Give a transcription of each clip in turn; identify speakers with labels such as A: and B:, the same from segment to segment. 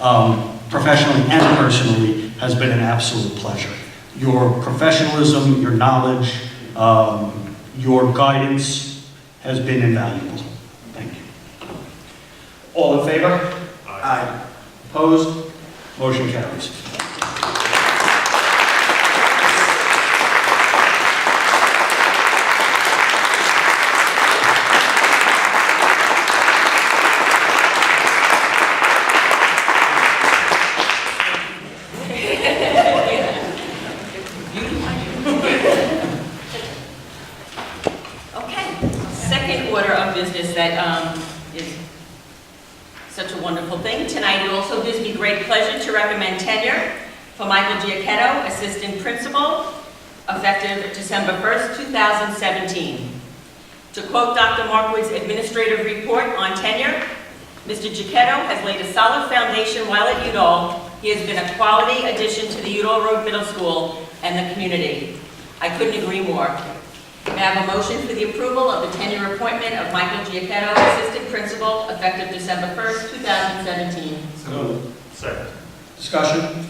A: um, professionally and personally, has been an absolute pleasure. Your professionalism, your knowledge, um, your guidance has been invaluable. Thank you. All in favor? Aye. Opposed? Motion carries.
B: Okay, second order of business that um, is such a wonderful thing. Tonight, it also gives me great pleasure to recommend tenure for Michael Giacchetto, Assistant Principal, effective December 1st, 2017. To quote Dr. Markwood's administrative report on tenure, Mr. Giacchetto has laid a solid foundation while at Udall. He has been a quality addition to the Udall Road Middle School and the community. I couldn't agree more. May I have a motion for the approval of the tenure appointment of Michael Giacchetto, Assistant Principal, effective December 1st, 2017?
C: Second.
A: Discussion?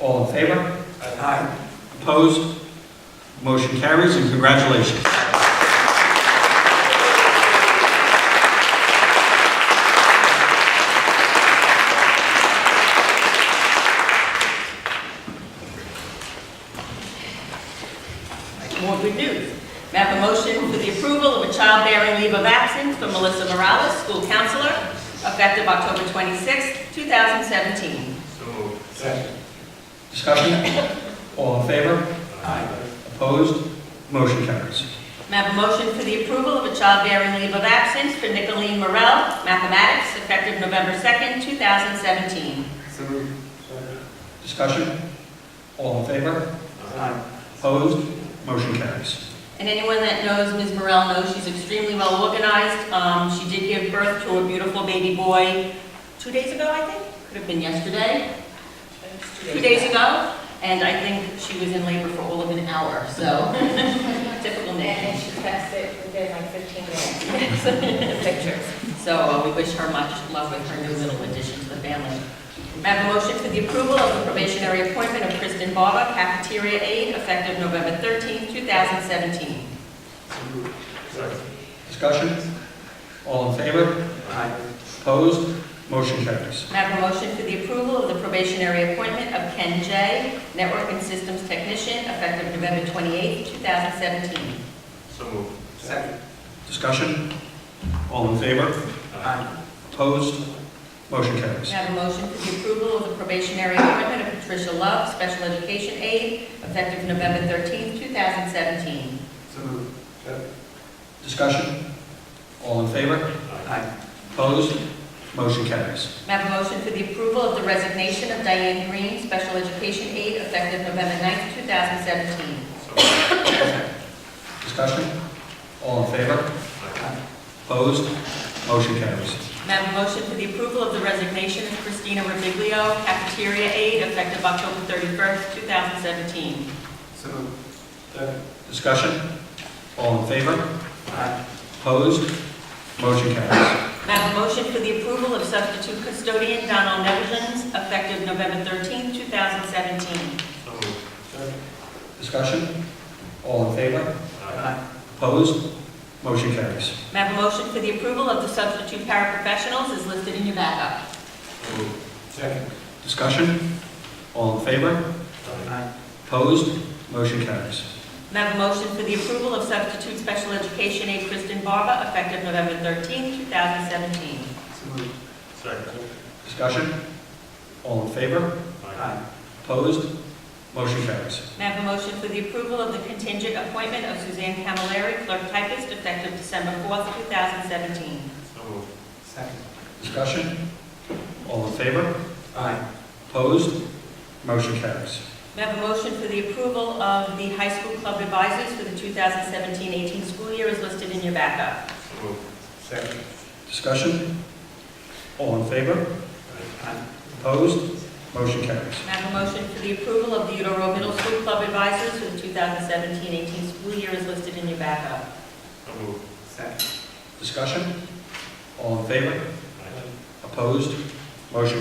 A: All in favor? Aye. Opposed? Motion carries, and congratulations.
B: More good news. May I have a motion for the approval of a childbearing leave of absence for Melissa Morales, School Counselor, effective October 26th, 2017?
C: So moved. Second.
A: Discussion? All in favor?
C: uh, Aye.
A: Opposed? Motion carries.
B: May I have a motion for the approval of a childbearing leave of absence for Nicolene Morel, Mathematics, effective November 2nd, 2017?
C: So moved. Second.
A: Discussion? All in favor?
C: Uh, Aye.
A: Opposed? Motion carries.
B: And anyone that knows Ms. Morel knows she's extremely well organized. Um, She did give birth to a beautiful baby boy two days ago, I think? Could have been yesterday. Two days ago. And I think she was in labor for all of an hour, so typical name.
D: And she passed it within like 15 minutes. Pictures.
B: So uh, we wish her much love with her new little addition to the family. May I have a motion for the approval of the probationary appointment of Kristen Barba, cafeteria aide, effective November 13, 2017?
C: So moved. Second.
A: Discussion? All in favor?
C: Aye.
A: Opposed? Motion carries.
B: May I have a motion for the approval of the probationary appointment of Ken J., Network and Systems Technician, effective November 28, 2017?
C: So moved. Second.
A: Discussion? All in favor?
C: Uh, Aye.
A: Opposed? Motion carries.
B: May I have a motion for the approval of the probationary appointment of Patricia Love, Special Education Aide, effective November 13, 2017?
C: So moved. Second.
A: Discussion? All in favor?
C: uh, Aye.
A: Opposed? Motion carries.
B: May I have a motion for the approval of the resignation of Diane Green, Special Education Aide, effective November 9, 2017?
C: So moved.
A: Discussion? All in favor?
C: Aye.
A: Opposed? Motion carries.
B: May I have a motion for the approval of the resignation of Christina Remiglio, Cafeteria Aide, effective October 31st, 2017?
C: So moved. Second.
A: Discussion? All in favor?
C: Aye.
A: Opposed? Motion carries.
B: May I have a motion for the approval of substitute custodian Donald Nevins, effective November 13th, 2017?
C: So moved. Second.
A: Discussion? All in favor?
C: Aye.
A: Opposed? Motion carries.
B: May I have a motion for the approval of the substitute paraprofessionals as listed in your backup?
C: So moved. Second.
A: Discussion? All in favor?
C: Aye.
A: Opposed? Motion carries.
B: May I have a motion for the approval of substitute special education aide Kristen Barba, effective November 13th, 2017?
C: So moved. Second.
A: Discussion? All in favor?
C: Aye.
A: Opposed? Motion carries.
B: May I have a motion for the approval of the contingent appointment of Suzanne Camilleri, clerk typist, effective December 4th, 2017?
C: So moved. Second.
A: Discussion? All in favor?
C: Aye.
A: Opposed? Motion carries.
B: May I have a motion for the approval of the high school club advisors for the 2017-18 school year as listed in your backup?
C: So moved. Second.
A: Discussion? All in favor?
C: Aye.
A: Opposed? Motion carries.
B: May I have a motion for the approval of the Udall Road Middle School club advisors for the 2017-18 school year as listed in your backup?
C: So moved. Second.
A: Discussion? All in favor?
C: Aye.
A: Opposed? Motion